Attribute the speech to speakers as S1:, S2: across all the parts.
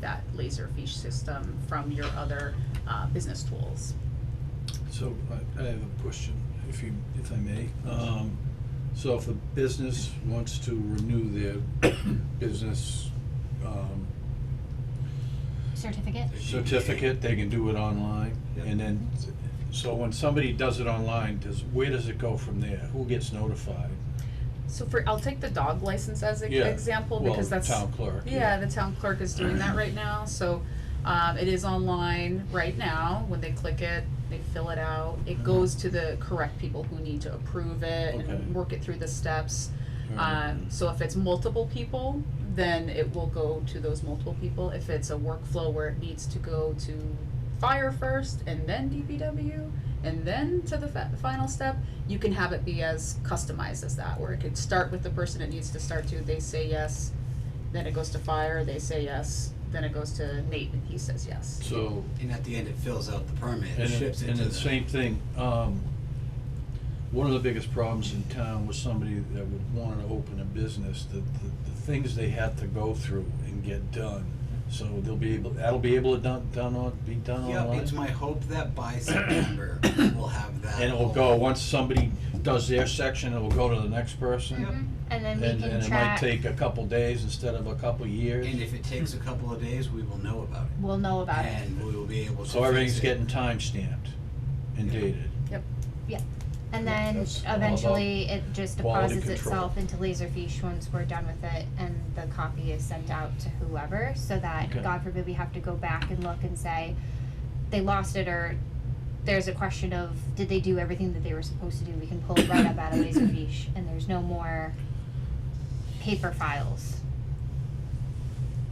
S1: that laserfish system from your other uh, business tools.
S2: So I, I have a question, if you, if I may. Um, so if a business wants to renew their business, um,
S3: certificate.
S2: certificate, they can do it online. And then, so when somebody does it online, does, where does it go from there? Who gets notified?
S1: So for, I'll take the dog license as an
S2: Yeah,
S1: example
S2: well,
S1: because that's.
S2: town clerk,
S1: Yeah,
S2: yeah.
S1: the town clerk is doing that right now, so, um, it is online right now, when they click it, they fill it out,
S2: Uh-huh.
S1: it goes to the correct people who need to approve it
S2: Okay.
S1: and work it through the steps.
S2: Alright.
S1: Um, so if it's multiple people, then it will go to those multiple people, if it's a workflow where it needs to go to fire first and then DPW and then to the fa- final step, you can have it be as customized as that, where it could start with the person it needs to start to, they say yes, then it goes to fire, they say yes, then it goes to Nate and he says yes.
S2: So,
S4: And at the end, it fills out the permit,
S2: and
S4: it
S2: it,
S4: ships it
S2: and
S4: to
S2: the same thing, um, one of the biggest problems in town was somebody that would wanna open a business, the, the, the things they had to go through and get done. So they'll be able, that'll be able to done, done on, be done online?
S4: Yep, it's my hope that by September, we'll have that.
S2: And it'll
S4: whole-
S2: go, once somebody does their section, it'll go to the next person.
S3: Mhm. And then
S2: And,
S3: we can
S2: and it might
S3: track,
S2: take a couple days instead of a couple years.
S4: And if it takes a couple of days, we will know about it.
S3: we'll know about it.
S4: And we will be able to fix
S2: So everything's
S4: it.
S2: getting time stamped and
S4: Yeah.
S2: dated.
S3: And then
S2: That's all about
S3: eventually it just
S2: quality
S3: deposits
S2: control.
S3: itself into Laserfiche once we're done with it and the copy is sent out to whoever so that,
S2: Okay.
S3: God forbid, we have to go back and look and say, they lost it or there's a question of, did they do everything that they were supposed to do? We can pull it right up out of Laserfiche and there's no more paper files.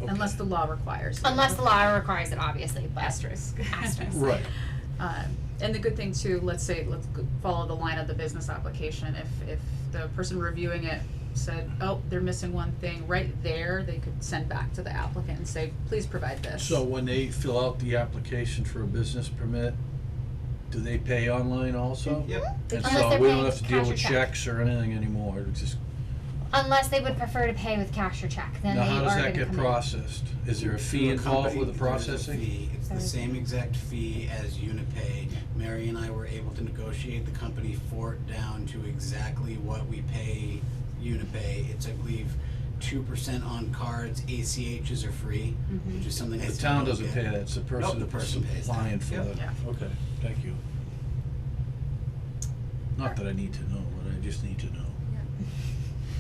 S1: Unless
S2: Okay.
S1: the law requires. it.
S3: Unless the law requires it, obviously, but.
S1: Asterisk.
S3: Asterisk.
S2: Right,
S1: Um, and the good thing too, let's say, let's go- follow the line of the business application, if, if the person reviewing it said, oh, they're missing one thing, right there, they could send back to the applicant and say, please provide this.
S2: so when they fill out the application for a business permit, do they pay online also?
S4: Yep.
S2: And
S3: Unless
S2: so
S3: they're
S2: we don't have to deal
S3: paying cash or
S2: with
S3: check.
S2: checks or anything anymore, it's just,
S3: Unless they would prefer to pay with cash or check, then
S2: now
S3: they
S2: how
S3: are
S2: does
S3: gonna
S2: that get
S3: come in.
S2: processed? Is there a fee
S4: Through
S2: involved
S4: company,
S2: with the
S4: there is a
S2: processing?
S4: fee. It's the
S3: Sorry.
S4: same exact fee as Unipay. Mary and I were able to negotiate the company for it down to exactly what we pay Unipay. It's, I believe, two percent on cards, ACHs are free,
S1: Mm-hmm.
S4: which is something
S2: The
S4: that's.
S2: town doesn't pay that, it's the person
S4: the
S2: that's
S4: person pays that.
S2: applying for
S4: Yep.
S2: the,
S1: Yeah.
S2: okay, thank you. Not that I need to know, but I just need to know.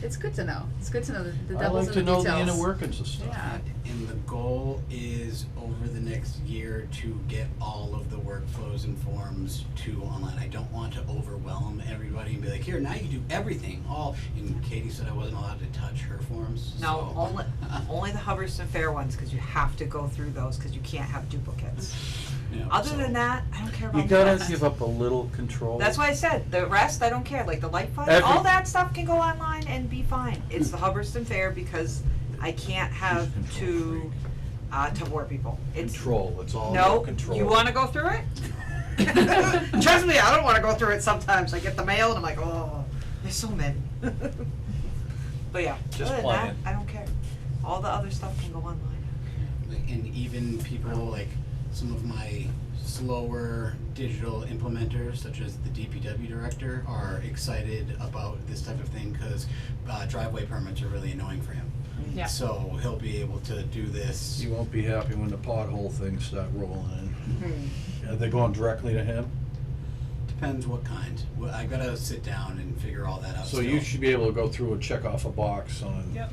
S1: It's good to know, it's good to know the the devil's in the
S2: I
S1: details.
S2: like to know the inner workings of stuff.
S1: Yeah.
S4: And the goal is over the next year to get all of the workflows and forms to online. I don't want to overwhelm everybody and be like, here, now you do everything, all, and Katie said I wasn't allowed to touch her forms,
S5: No,
S4: so-
S5: only, only the Hubbardston Fair ones, cause you have to go through those, cause you can't have duplicates.
S4: Yeah,
S5: Other
S4: so-
S5: than that, I don't care
S6: You
S5: about the
S6: gotta
S5: rest.
S6: give up a little control.
S5: That's why I said, the rest, I don't care, like the light fund,
S6: Every-
S5: all that stuff can go online and be fine. It's the Hubbardston Fair because I can't have
S2: Control
S5: two, uh, Tupperware people. It's,
S2: Control, it's all about
S5: no,
S2: control.
S5: you wanna go through it? Trust me, I don't wanna go through it sometimes. I get the mail and I'm like, oh, there's so many. But yeah,
S2: Just
S5: other than that,
S2: plan.
S5: I don't care. All the other stuff can go online.
S4: Like, and even people like some of my slower digital implementers, such as the DPW director, are excited about this type of thing because uh, driveway permits are really annoying for him.
S1: Yeah.
S4: So he'll be able to do this.
S2: You won't be happy when the pothole things start rolling
S4: Hmm.
S2: in. Are they going directly to him?
S4: Depends what kind. Well, I gotta sit down and figure all that out.
S2: So you
S4: still.
S2: should be able to go through and check off a box on,
S4: Yep.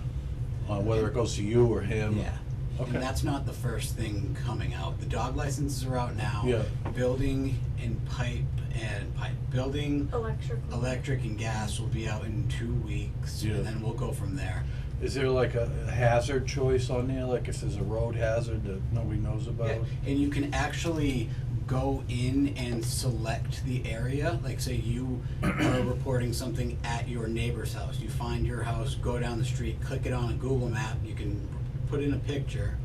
S2: on whether it goes to you or him.
S4: Yeah.
S2: Okay.
S4: And that's not the first thing coming out. The dog licenses are out now.
S2: Yeah.
S4: Building and pipe and pipe building.
S7: Electrical.
S4: Electric and gas will be out in two weeks,
S2: Yeah.
S4: and then we'll go from there.
S2: Is there like a a hazard choice on there, like if there's a road hazard that nobody knows about?
S4: And you can actually go in and select the area. Like, say you are reporting something at your neighbor's house. You find your house, go down the street, click it on a Google map. You can put in a picture.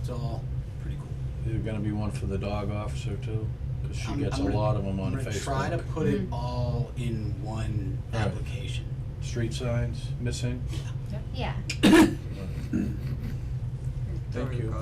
S4: It's all pretty cool.
S2: Is there gonna be one for the dog officer too? Cause she
S4: I'm-
S2: gets a
S4: I'm gonna-
S2: lot of them on
S4: I'm gonna try to
S2: Facebook.
S4: put it all in one
S2: All right.
S4: application.
S2: Street signs missing?
S3: Yeah.
S5: There
S2: Thank
S5: we
S2: you.
S5: go.